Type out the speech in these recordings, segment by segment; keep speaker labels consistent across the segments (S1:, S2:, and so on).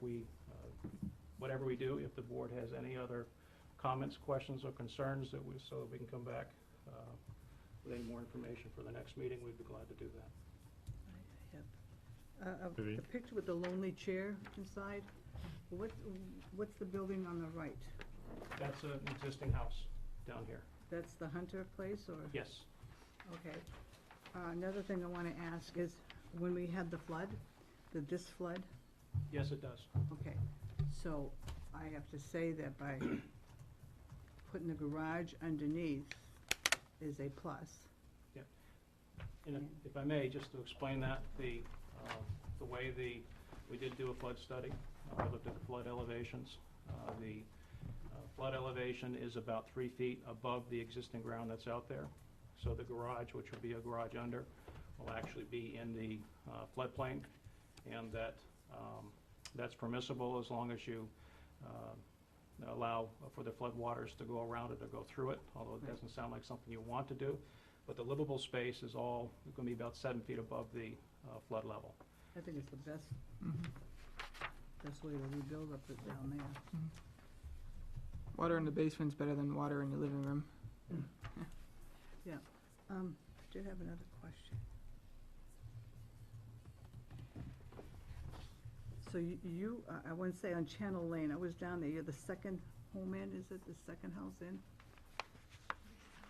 S1: we, uh, whatever we do, if the board has any other comments, questions, or concerns that we, so that we can come back uh, with any more information for the next meeting, we'd be glad to do that.
S2: Uh, uh,
S3: Vivian?
S2: The picture with the lonely chair inside, what, what's the building on the right?
S1: That's an existing house down here.
S2: That's the Hunter place, or?
S1: Yes,
S2: Okay. Uh, Another thing I want to ask is, when we had the flood, the this flood,
S1: yes, it does.
S2: okay, so I have to say that by putting the garage underneath is a plus.
S1: And if- if I may, just to explain that, the, um, the way the, we did do a flood study, uh, we looked at the flood elevations. Uh, The uh, flood elevation is about three feet above the existing ground that's out there. So the garage, which will be a garage under, will actually be in the uh, floodplain. And that, um, that's permissible as long as you um, allow for the floodwaters to go around it or go through it, although it
S2: Right.
S1: doesn't sound like something you want to do. But the livable space is all, going to be about seven feet above the uh, flood level.
S2: I think it's the best,
S4: Mm-hmm.
S2: best way to rebuild up it down there.
S4: Water in the basement's better than water in your living room.
S2: Um, I did have another question. So you- you, I- I wouldn't say on Channel Lane, I was down there, you're the second home in, is it, the second house in?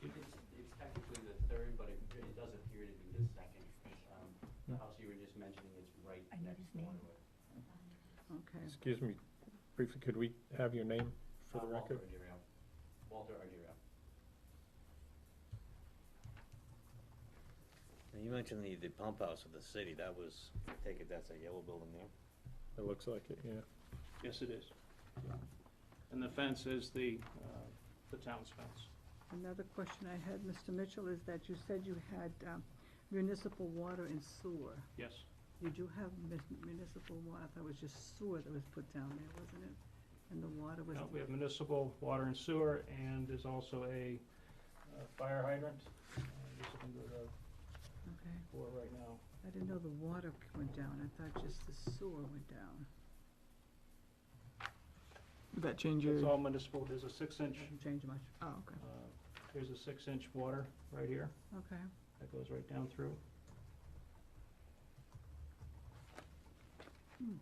S5: It's, it's technically the third, but it, it does appear to be the second. Um, The house you were just mentioning is right
S6: I need
S5: next
S6: his
S5: door
S6: name.
S5: to it.
S2: Okay,
S3: Excuse me, briefly, could we have your name for
S5: Uh,
S3: the record?
S5: Walter Ardiero. Walter Ardiero.
S7: You mentioned the, the pump house of the city, that was, I take it that's that yellow building there?
S3: It looks like it, yeah.
S1: Yes, it is. And the fence is the, uh, the town's fence.
S2: another question I had, Mr. Mitchell, is that you said you had um, municipal water and sewer.
S1: Yes,
S2: You do have mun- municipal water, I thought it was just sewer that was put down there, wasn't it? And the water was.
S1: Uh, we have municipal water and sewer, and there's also a uh, fire hydrant. Uh, Just under the
S2: Okay,
S1: floor right now.
S2: I didn't know the water went down, I thought just the sewer went down.
S4: Would that change your?
S1: It's all municipal, there's a six-inch,
S2: Didn't change much,
S4: Oh, okay.
S1: here's a six-inch water right here
S2: okay.
S1: that goes right down through.
S2: Hmm.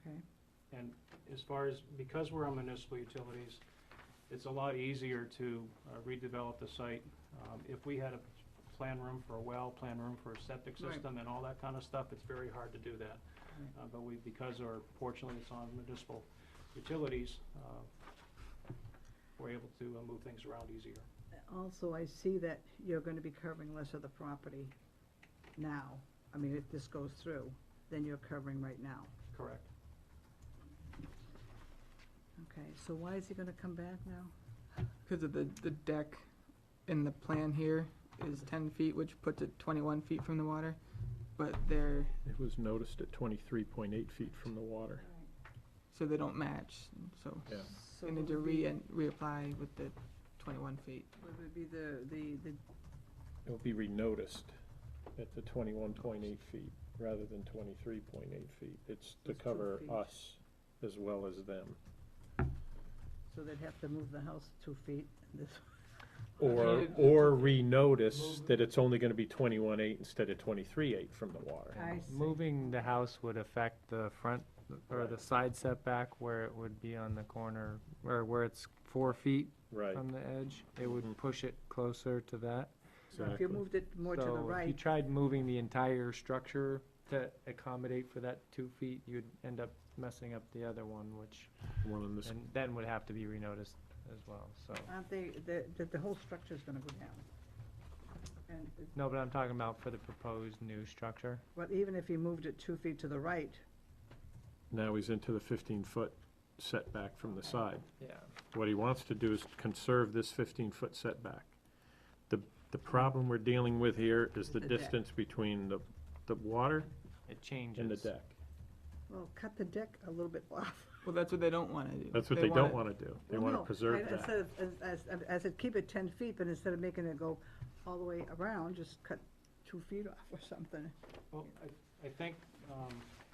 S2: Okay,
S1: And as far as, because we're on municipal utilities, it's a lot easier to uh, redevelop the site. Um, If we had a plan room for a well, plan room for a septic
S2: Right.
S1: system and all that kind of stuff, it's very hard to do that.
S2: Right.
S1: Uh, But we, because our, fortunately, it's on municipal utilities, uh, we're able to uh, move things around easier.
S2: also, I see that you're gonna be covering less of the property now. I mean, if this goes through, then you're covering right now.
S1: Correct.
S2: Okay, so why is he gonna come back now?
S4: Because of the, the deck in the plan here is ten feet, which puts it twenty-one feet from the water. But they're,
S3: It was noticed at twenty-three point eight feet from the water.
S4: so they don't match, so
S3: Yeah.
S2: So
S4: we need to re, and reapply with the twenty-one feet.
S2: Would it be the, the, the,
S3: It'll be renoticed at the twenty-one point eight feet rather than twenty-three point eight feet. It's to
S2: It's two
S3: cover
S2: feet.
S3: us as well as them.
S2: so they'd have to move the house two feet, this,
S3: Or,
S4: Okay.
S3: or renotice that it's only gonna be twenty-one eight instead of twenty-three eight from the water.
S2: I see,
S8: Moving the house would affect the front, or the side setback where it would be on the corner, or where it's four feet
S3: Right,
S8: from the edge. It
S3: Mhm.
S8: would push it closer to that.
S2: so if you
S3: exactly.
S2: moved it more to the
S8: So if you
S2: right,
S8: tried moving the entire structure to accommodate for that two feet, you'd end up messing up the other one, which,
S3: One in this,
S8: and then would have to be renoticed as well, so.
S2: aren't they, the, the, the whole structure's gonna go down? And, it-
S8: No, but I'm talking about for the proposed new structure.
S2: but even if he moved it two feet to the right,
S3: now he's into the fifteen-foot setback from the side.
S8: Yeah.
S3: What he wants to do is conserve this fifteen-foot setback. The, the problem we're dealing with here is the
S2: The deck.
S3: distance between the, the water
S8: It changes.
S3: and the deck.
S2: well, cut the deck a little bit off.
S4: Well, that's what they don't wanna do.
S3: That's what they don't wanna do. They
S2: Well,
S3: wanna
S2: no,
S3: preserve
S2: I- I
S3: that.
S2: said, as- as- as- I said, keep it ten feet, but instead of making it go all the way around, just cut two feet off or something.
S1: Well, I, I think um,